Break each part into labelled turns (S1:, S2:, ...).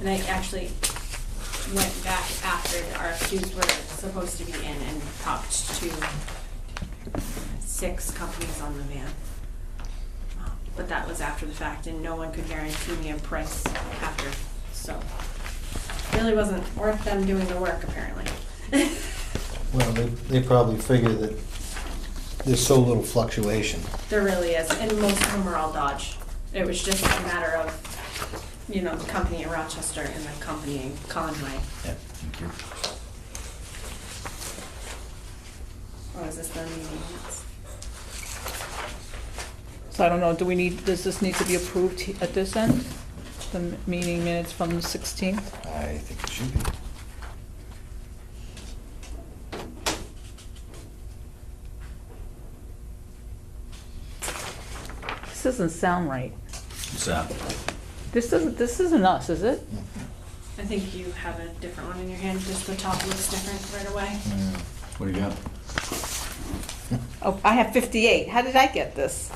S1: And I actually went back after the RFQs were supposed to be in and talked to six companies on the van. Um, But that was after the fact and no one could guarantee me a price after, so. Really wasn't worth them doing the work apparently.
S2: Well, they, they probably figure that there's so little fluctuation.
S1: There really is, and most of them are all Dodge. It was just a matter of, you know, the company in Rochester and the company in Conway.
S3: Thank you.
S1: Or is this the meeting minutes?
S4: So I don't know, do we need, does this need to be approved he- at this end? The m- meeting minutes from the 16th?
S3: I think it should be.
S4: This doesn't sound right.
S3: So,
S4: This doesn't, this isn't us, is it?
S1: I think you have a different one in your hand, just the top looks different right away.
S3: what do you got?
S4: Oh, I have 58. How did I get this?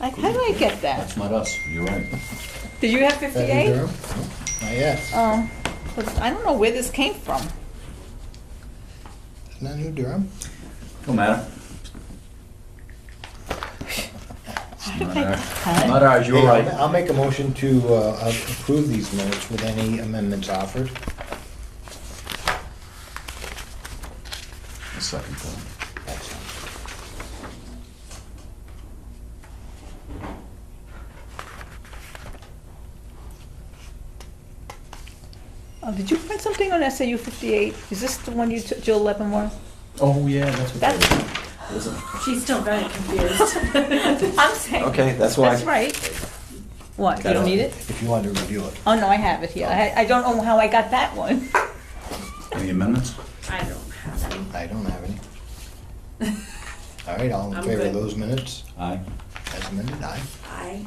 S4: Like, how did I get that?
S3: That's not us, you're right.
S4: Did you have
S2: That
S4: 58?
S2: Durham? Not yet.
S4: Oh, but I don't know where this came from.
S2: Not New Durham?
S3: Don't matter.
S4: How did
S3: Not
S4: I-
S3: ours. Not ours, you're
S2: Hey, I'll-
S3: right.
S2: I'll make a motion to uh, approve these minutes with any amendments offered.
S3: A second thought.
S2: Excellent.
S4: Oh, did you print something on SAU 58? Is this the one you took, Jill Leavenworth?
S3: Oh, yeah, that's what
S4: That's-
S3: that is. Is it?
S1: She's still very confused.
S4: I'm saying.
S3: Okay, that's why.
S4: That's right. What, you don't need it?
S2: If you want to review it.
S4: Oh, no, I have it here. I, I don't know how I got that one.
S3: Any amendments?
S1: I don't have any.
S2: I don't have any. All right, all in
S1: I'm
S2: favor of
S1: good.
S2: those minutes
S3: Aye.
S2: as amended, aye.
S1: I,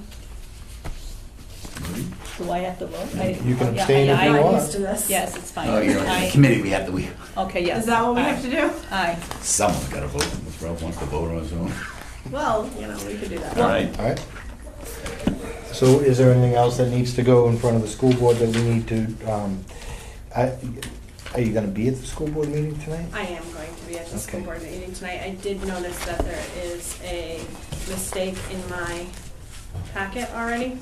S3: Marie?
S4: Do I have to vote? I- oh,
S2: You can
S4: yeah,
S2: abstain if
S4: I-
S2: you
S4: I-
S1: I'm
S2: want.
S1: used to this.
S4: Yes, it's fine.
S3: Oh, you're right,
S4: I-
S3: the committee, we have to, we,
S4: Okay, yes.
S1: Is that what we have to do?
S4: Aye.
S3: someone's gotta vote, if Ralph wants to vote on his own.
S1: Well, you know, we could do that.
S3: All right,
S2: All right. So is there anything else that needs to go in front of the school board that we need to, um, I- are you gonna be at the school board meeting tonight?
S1: I am going to be at the school
S2: Okay.
S1: board meeting tonight. I did notice that there is a mistake in my packet already.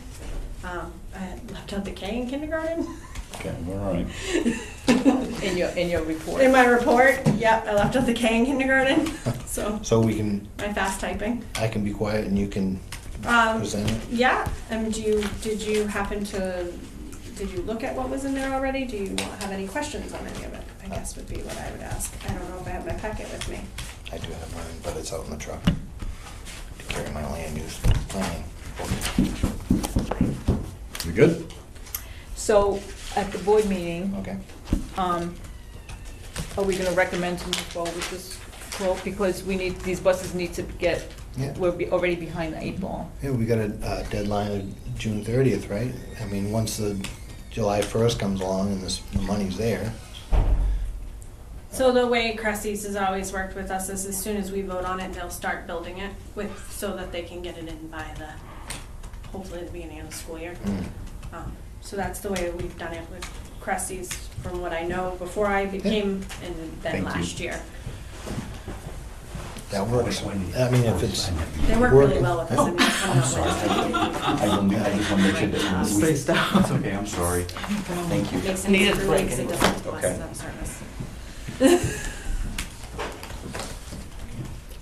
S1: Um, I had left out the K in kindergarten.
S3: okay, we're all right.
S4: In your, in your report.
S1: In my report, yep, I left out the K in kindergarten, so
S2: So we can,
S1: my fast typing.
S2: I can be quiet and you can
S1: Um,
S2: present it?
S1: Yeah, and do you, did you happen to, did you look at what was in there already? Do you want- have any questions on any of it? I guess would be what I would ask. I don't know if I have my packet with me.
S2: I do have mine, but it's out in the truck to carry my land use planning.
S3: We good?
S4: So at the board meeting,
S2: Okay.
S4: um, are we gonna recommend to move forward with this quote? Because we need, these buses need to get,
S2: Yeah.
S4: we're be- already behind the eight ball.
S2: Yeah, we got a uh, deadline of June thirtieth, right? I mean, once the July first comes along and this, the money's there.
S1: So the way Cressy's has always worked with us is as soon as we vote on it, they'll start building it with, so that they can get it in by the, hopefully the beginning of the school year.
S2: Mm.
S1: Um, So that's the way we've done it with Cressy's, from what I know, before I became, and
S3: Thank
S1: then
S3: you.
S1: last year.
S2: That works. I mean, if it's,
S1: They work really
S2: Working.
S1: well with us, I mean, I'm not worried about it.
S3: I don't, Oh, I just wanna make sure that. Spaced out. It's okay, I'm sorry. Thank you.
S1: Makes
S4: Needed
S1: sense for me,
S4: break
S1: 'cause it
S4: anyway.
S1: doesn't cost
S3: Okay.
S1: them service.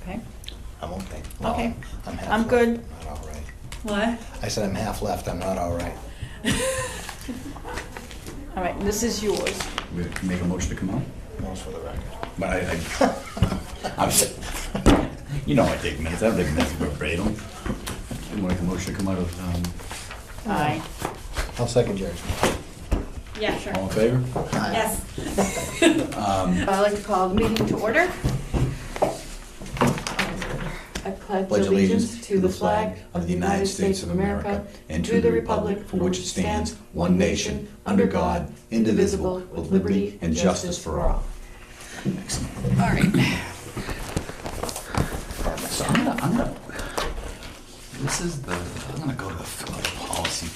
S4: Okay?
S2: I'm okay. Well,
S4: Okay.
S2: I'm half
S4: I'm
S2: left.
S4: good.
S2: Not all right.
S1: What?
S2: I said I'm half left, I'm not all right.
S4: All right, this is yours.
S3: We Make a motion to come out?
S2: Most for the record.
S3: But I, I, I'm, s- you know I take minutes, I don't take minutes verbatim. I'm gonna make a motion to come out of, um,
S4: Aye.
S2: I'll second yours.
S1: Yeah, sure.
S3: all in favor?
S1: Yes.
S5: Uh, I'd like to call the meeting to order. I pledge
S3: Pledge
S5: allegiance to the flag of the United States of America and to the republic for which it stands, one nation, under God, indivisible, with liberty and justice for all.
S3: So I'm gonna, I'm gonna, this is the, I'm gonna go to the policy